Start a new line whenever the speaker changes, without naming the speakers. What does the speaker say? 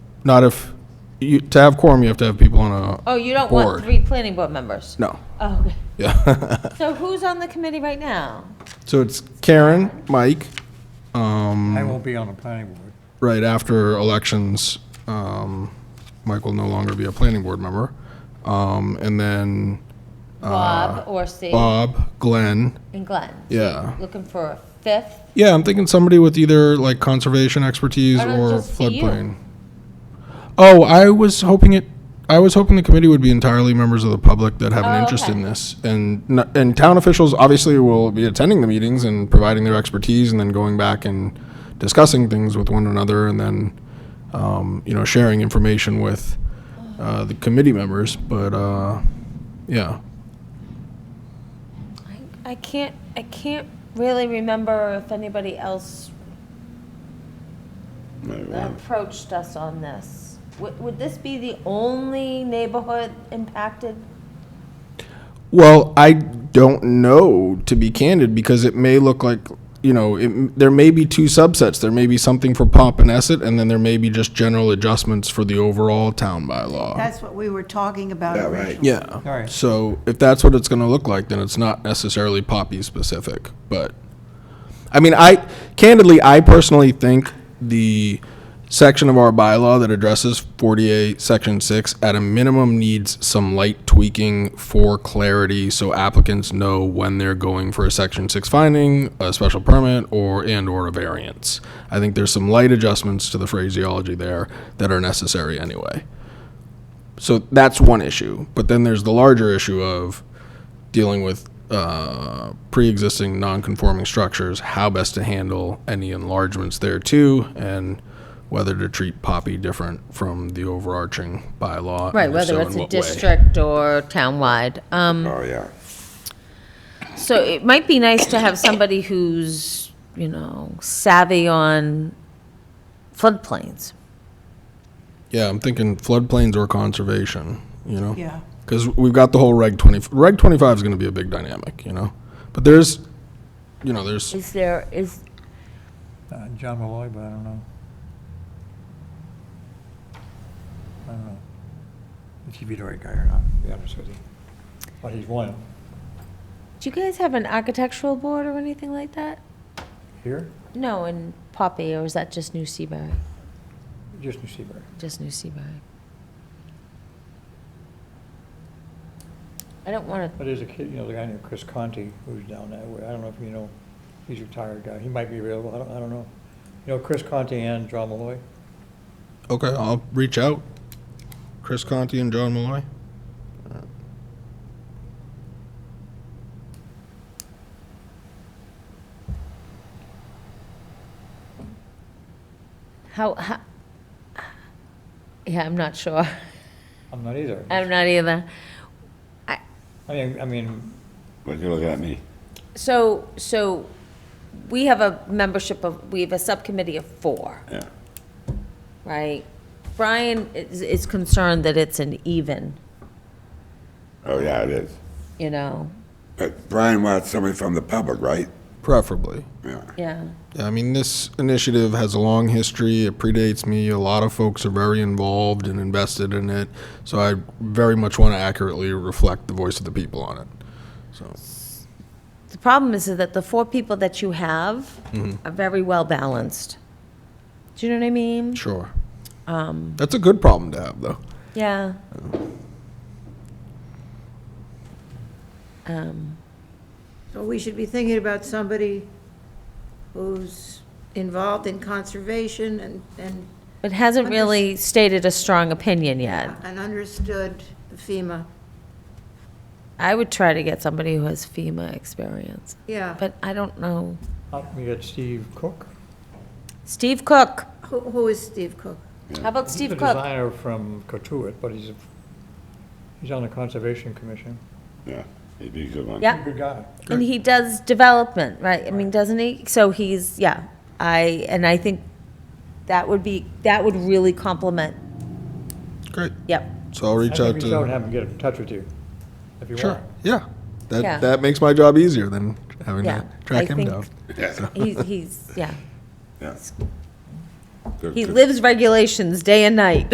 Not if, you, to have quorum, you have to have people on a,
Oh, you don't
Board.
want three planning board members?
no,
Oh, okay.
yeah.
So who's on the committee right now?
So it's Karen, Mike, um,
I won't be on the planning board.
right after elections, um, Mike will no longer be a planning board member. Um, and then
Bob, Orsi,
Uh, Bob, Glenn,
and Glenn?
yeah.
Looking for a fifth?
Yeah, I'm thinking somebody with either like conservation expertise
Why not
or
just be you?
floodplain. Oh, I was hoping it, I was hoping the committee would be entirely members of the public that have
Oh,
an interest
okay.
in this. And, no- and town officials obviously will be attending the meetings and providing their expertise and then going back and discussing things with one another and then, um, you know, sharing information with, uh, the committee members, but, uh, yeah.
I- I can't, I can't really remember if anybody else approached us on this. Would, would this be the only neighborhood impacted?
Well, I don't know, to be candid, because it may look like, you know, it, there may be two subsets. There may be something for Pompanesset, and then there may be just general adjustments for the overall town bylaw.
That's what we were talking about
Yeah, right.
originally.
Yeah.
All right.
So if that's what it's going to look like, then it's not necessarily Poppy specific. But, I mean, I, candidly, I personally think the section of our bylaw that addresses 48, section 6, at a minimum needs some light tweaking for clarity so applicants know when they're going for a section 6 finding, a special permit, or, and/or a variance. I think there's some light adjustments to the phraseology there that are necessary anyway. So that's one issue. But then there's the larger issue of dealing with uh, pre-existing non-conforming structures, how best to handle any enlargements there too, and whether to treat Poppy different from the overarching bylaw. and
Right,
if
whether
so,
it's
in
a
what way.
district or townwide. Um,
Oh, yeah.
So it might be nice to have somebody who's, you know, savvy on floodplains.
Yeah, I'm thinking floodplains or conservation, you know?
Yeah.
Because we've got the whole Reg 20, Reg 25 is going to be a big dynamic, you know? But there's, you know, there's,
Is there, is,
Uh, John Malloy, but I don't know. I don't know. If he'd be the right guy or not, to be honest with you. But he's one.
do you guys have an architectural board or anything like that?
Here?
No, in Poppy, or is that just New Seabury?
Just New Seabury.
Just New Seabury. I don't want to,
But there's a kid, you know, the guy named Chris Conti who's down that way. I don't know if you know, he's a retired guy. He might be available. I don't, I don't know. You know, Chris Conti and John Malloy?
okay, I'll reach out. Chris Conti and John Malloy.
how, how, yeah, I'm not sure.
I'm not either.
I'm not either.
I mean, I mean,
But you look at me.
So, so we have a membership of, we have a subcommittee of four,
Yeah.
right? Brian is, is concerned that it's an even,
Oh, yeah, it is.
you know,
But Brian wants somebody from the public, right?
Preferably.
Yeah.
yeah.
Yeah, I mean, this initiative has a long history. It predates me. A lot of folks are very involved and invested in it. So I very much want to accurately reflect the voice of the people on it. So,
The problem is that the four people that you have are very well balanced. Do you know what I mean?
sure. Um, That's a good problem to have, though.
Yeah. Um,
So we should be thinking about somebody who's involved in conservation and, and,
But hasn't really stated a strong opinion yet.
and understood FEMA.
I would try to get somebody who has FEMA experience,
Yeah.
but I don't know.
uh, we got Steve Cook.
Steve Cook.
Who, who is Steve Cook?
How about
He's
Steve
a
Cook?
designer from Cotuit, but he's, a- he's on the Conservation Commission.
Yeah. He'd be a good one.
Yeah.
Good guy.
And he does development, right? I mean, doesn't he? So he's, yeah, I, and I think that would be, that would really complement,
Great.
yep.
So I'll
I
reach
can
out
reach out and
to.
have him get in touch with you, if you
Sure.
want.
Yeah. That
Yeah.
that makes my job easier than having
Yeah,
to track
I
him
think-
down.
Yeah.
He's, he's, yeah.
Yeah.
He lives regulations day and night.